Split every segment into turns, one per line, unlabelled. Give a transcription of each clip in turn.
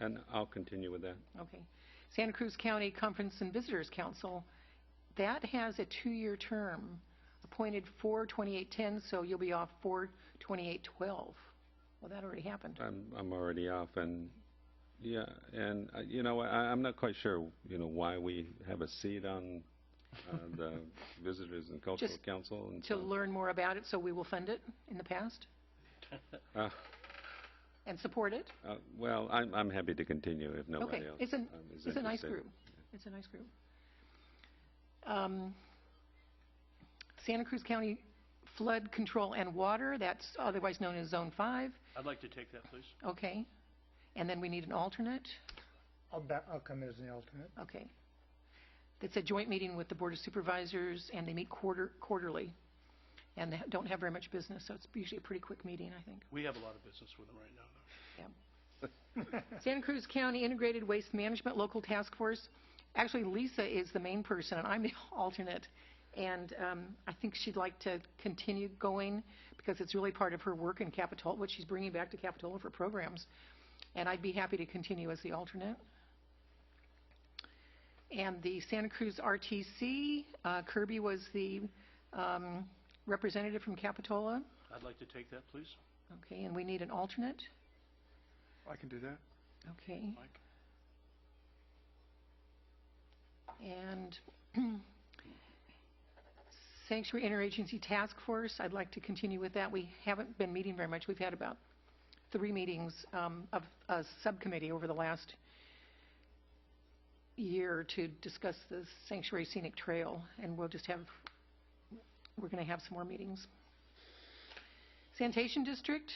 And I'll continue with that.
Okay. Santa Cruz County Conference and Visitors Council, that has a two-year term, appointed 4/28/10, so you'll be off 4/28/12. Well, that already happened.
I'm, I'm already off and, yeah, and, uh, you know, I, I'm not quite sure, you know, why we have a seat on uh, the Visitors and Cultural
Just
Council and
To
so,
learn more about it, so we will fund it in the past
uh,
and support it.
uh, well, I'm, I'm happy to continue if nobody
Okay,
else
it's an,
um, is
it's a nice
interested.
group. It's a nice group. Um, Santa Cruz County Flood Control and Water, that's otherwise known as Zone 5,
I'd like to take that, please.
okay. And then we need an alternate.
I'll, ba- I'll come in as an alternate.
Okay. It's a joint meeting with the Board of Supervisors, and they meet quarter, quarterly, and they don't have very much business, so it's usually a pretty quick meeting, I think.
We have a lot of business with them right now, though.
Santa Cruz County Integrated Waste Management Local Task Force, actually Lisa is the main person, and I'm the alternate, and um, I think she'd like to continue going, because it's really part of her work in Capitola, what she's bringing back to Capitola for programs, and I'd be happy to continue as the alternate. And the Santa Cruz RTC, uh, Kirby was the um, representative from Capitola,
I'd like to take that, please.
okay, and we need an alternate,
I can do that.
okay.
Mike?
And Sanctuary Interagency Task Force, I'd like to continue with that. We haven't been meeting very much. We've had about three meetings um, of a subcommittee over the last year to discuss the Sanctuary Scenic Trail, and we'll just have, we're going to have some more meetings. Sanitation District,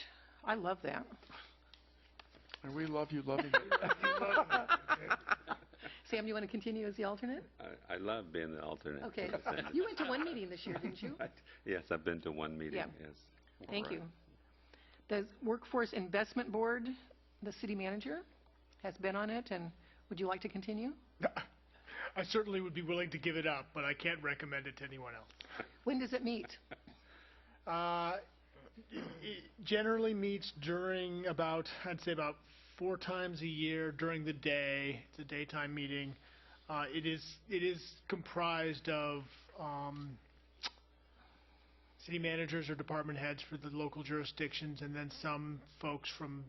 I love that.
And we love you loving it.
Sam, you want to continue as the alternate?
I, I love being the alternate.
Okay.
for the Senate.
You went to one meeting this year, didn't you?
Yes, I've been to one meeting,
Yeah.
yes.
Thank
Right.
you. The Workforce Investment Board, the city manager, has been on it, and would you like to continue?
I certainly would be willing to give it up, but I can't recommend it to anyone else.
When does it meet?
Uh, it generally meets during about, I'd say about four times a year during the day. It's a daytime meeting. Uh, it is it is comprised of um, city managers or department heads for the local jurisdictions, and then some folks from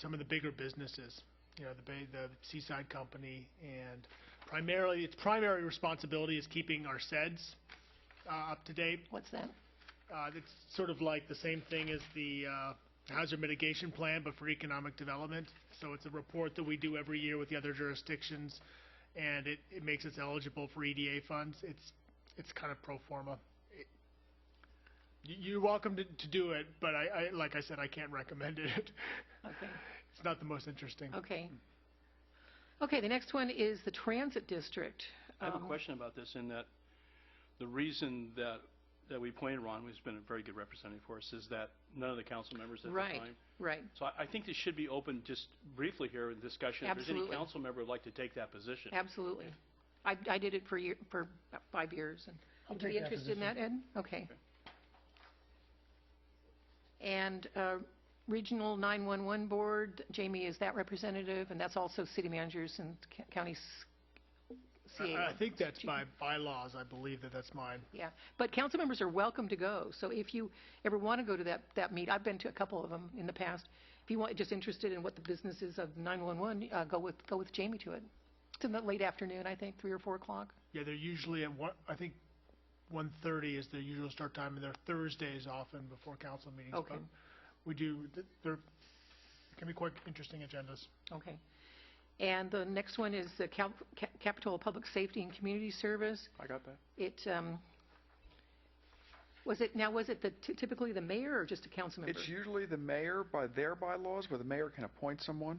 some of the bigger businesses. You know, the Bay, the Seaside Company, and primarily its primary responsibility is keeping our SEDS uh, up to date.
What's that?
Uh, it's sort of like the same thing as the uh, hazard mitigation plan, but for economic development. So it's a report that we do every year with the other jurisdictions, and it, it makes us eligible for EDA funds. It's it's kind of pro forma. It, you- you're welcome to, to do it, but I, I like I said, I can't recommend it.
Okay,
it's not the most interesting.
okay. Okay, the next one is the Transit District.
I have a
Um,
question about this in that the reason that, that we appointed Ron, who's been a very good representative for us, is that none of the council members at the
Right.
time.
Right,
So I, I think this should be open just briefly here in discussion. If there's
Absolutely.
any council member who'd like to take that position.
absolutely. I, I did it for year, for about five years, and
I'll
would you be
take that
interested in that, Ed? Okay. And uh, Regional 911 Board, Jamie is that representative, and that's also city managers and ca- county s-
I, I
CA.
think that's by bylaws. I believe that that's mine.
Yeah, but council members are welcome to go, so if you ever want to go to that, that meet, I've been to a couple of them in the past. If you want, just interested in what the business is of 911, uh, go with, go with Jamie to it. It's in the late afternoon, I think, 3 or 4 o'clock.
Yeah, they're usually at one. I think 1:30 is their usual start time, and they're Thursdays often before council meetings.
Okay.
but We do. th- They're can be quite interesting agendas.
Okay. And the next one is the Cal- Ca- Capitola Public Safety and Community Service.
I got that.
It, um, was it, now, was it the ty- typically the mayor or just a council member?
It's usually the mayor by their bylaws where the mayor can appoint someone.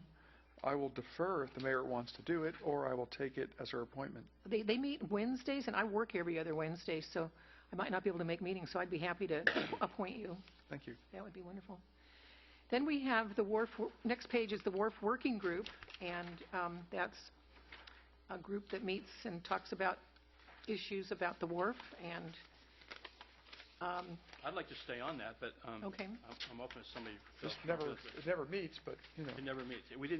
I will defer if the mayor wants to do it, or I will take it as her appointment.
They, they meet Wednesdays, and I work every other Wednesday, so I might not be able to make meetings, so I'd be happy to appoint you.
Thank you.
That would be wonderful. Then we have the WARF, next page is the WARF Working Group, and um, that's a group that meets and talks about issues about the WARF, and Um,
I'd like to stay on that, but um,
Okay.
I'm I'm open if somebody.
Just never, it never meets, but, you know.
It never meets. We didn't